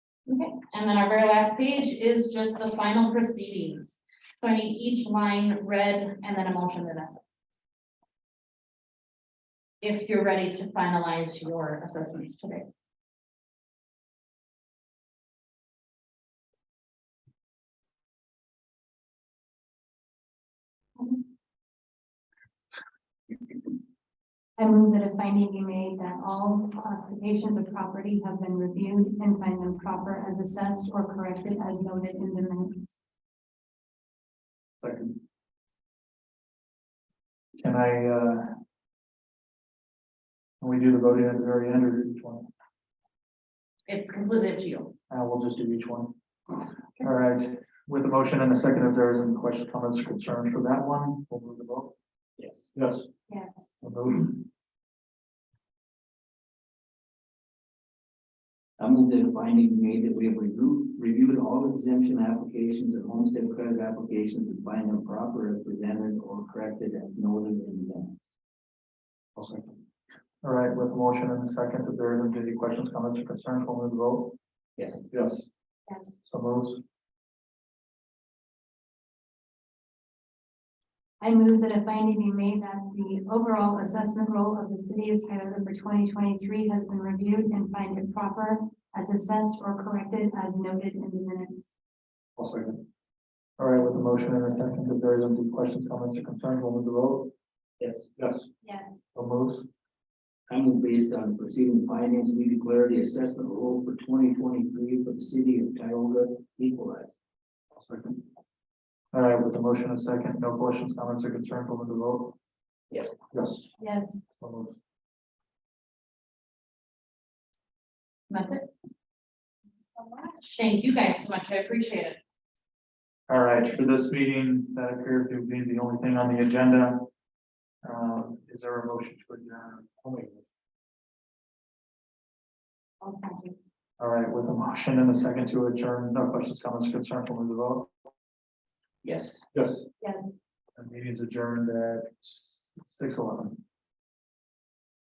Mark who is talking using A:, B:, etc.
A: Okay, and then our very last page is just the final proceedings. So I need each line read and then a motion to that. If you're ready to finalize your assessments today.
B: I move that a finding be made that all classifications of property have been reviewed and find them proper as assessed or corrected as noted in the minutes.
C: Second. Can I, uh? Can we do the voting at the very end or each one?
A: It's completely up to you.
C: Uh, we'll just do each one. All right, with the motion and a second, if there is any questions, comments, or concerns for that one, we'll move the vote. Yes. Yes.
B: Yes.
C: We'll move.
D: I move that a finding be made that we have reviewed, reviewed all exemption applications and homestead credit applications and find them proper as presented or corrected as noted in them.
C: I'll second. All right, with the motion and the second, if there is any questions, comments, or concerns, we'll move the vote.
D: Yes.
C: Yes.
B: Yes.
C: So moves.
B: I move that a finding be made that the overall assessment role of the city of Tyler for twenty twenty-three has been reviewed and find it proper as assessed or corrected as noted in the minutes.
C: I'll second. All right, with the motion and the second, if there is any questions, comments, or concerns, we'll move the vote.
D: Yes.
C: Yes.
B: Yes.
C: So moves.
D: I move based on preceding findings, we declare the assessment role for twenty twenty-three for the city of Tioga equalized.
C: I'll second. All right, with the motion and second, no questions, comments, or concerns, we'll move the vote.
D: Yes.
C: Yes.
B: Yes.
C: So moved.
A: That's it. Thank you guys so much. I appreciate it.
C: All right, for this meeting, that appears to be the only thing on the agenda. Um, is there a motion to adjourn?
B: I'll second.
C: All right, with a motion and a second to adjourn, no questions, comments, or concerns, we'll move the vote.
D: Yes.
C: Yes.
B: Yes.
C: The meeting's adjourned at six eleven.